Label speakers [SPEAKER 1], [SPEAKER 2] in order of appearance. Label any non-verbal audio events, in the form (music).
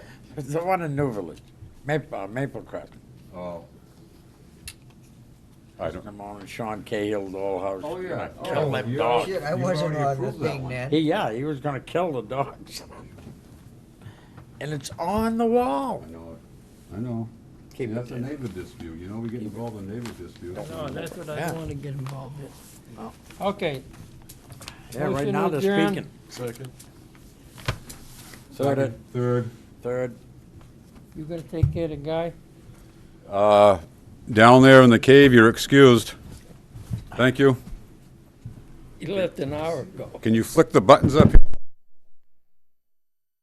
[SPEAKER 1] It's the one in New Village, Maple, uh, Maple Crest.
[SPEAKER 2] Oh.
[SPEAKER 1] I don't. on Sean Cahill, the whole house.
[SPEAKER 2] Oh, yeah.
[SPEAKER 1] Gonna Kill
[SPEAKER 2] Oh,
[SPEAKER 1] them
[SPEAKER 2] you-
[SPEAKER 1] dogs.
[SPEAKER 3] Shit, I
[SPEAKER 2] You've
[SPEAKER 3] wasn't
[SPEAKER 2] already
[SPEAKER 3] on the
[SPEAKER 2] approved that
[SPEAKER 3] thing,
[SPEAKER 2] one.
[SPEAKER 3] man.
[SPEAKER 1] He, yeah, he was gonna kill the dogs. (laughs) And it's on the wall.
[SPEAKER 2] I know it. I know.
[SPEAKER 1] Keep it
[SPEAKER 2] That's a
[SPEAKER 1] in.
[SPEAKER 2] neighbor dispute, you know, we get involved in neighbor disputes.
[SPEAKER 4] No, that's what I
[SPEAKER 1] Yeah.
[SPEAKER 4] want to get involved with. Okay,
[SPEAKER 1] Yeah, right
[SPEAKER 4] Motion
[SPEAKER 1] now they're
[SPEAKER 4] adjourned.
[SPEAKER 1] speaking.
[SPEAKER 5] Second.
[SPEAKER 1] Third,
[SPEAKER 2] Third.
[SPEAKER 1] third.
[SPEAKER 4] you gonna take care of the guy?
[SPEAKER 2] Uh, down there in the cave, you're excused. Thank you.
[SPEAKER 4] He left an hour ago.
[SPEAKER 2] Can you flick the buttons up? here?